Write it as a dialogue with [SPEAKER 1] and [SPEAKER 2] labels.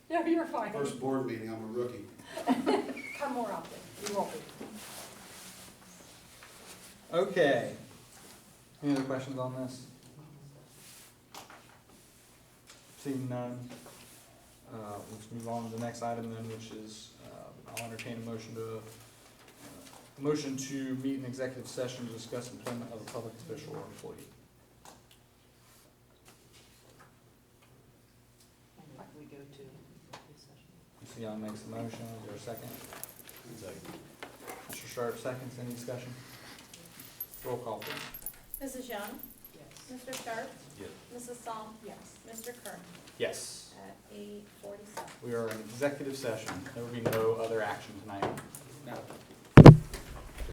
[SPEAKER 1] No, you're fine.
[SPEAKER 2] First board meeting, I'm a rookie.
[SPEAKER 1] Come more often. You won't be.
[SPEAKER 3] Okay. Any other questions on this? Seeing none, uh, let's move on to the next item then, which is, uh, I'll entertain a motion to, uh, motion to meet an executive session to discuss employment of a public official or employee.
[SPEAKER 4] We go to executive session.
[SPEAKER 3] Leon makes a motion, is there a second? Mr. Sharp seconds, any discussion? Roll call please.
[SPEAKER 5] Mrs. Young,
[SPEAKER 4] Yes.
[SPEAKER 5] Mr. Sharp,
[SPEAKER 2] Yes.
[SPEAKER 5] Mrs. Psalm,
[SPEAKER 1] Yes.
[SPEAKER 5] Mr. Kern
[SPEAKER 3] Yes.
[SPEAKER 5] at eight forty-seven.
[SPEAKER 3] We are in executive session. There will be no other action tonight. No.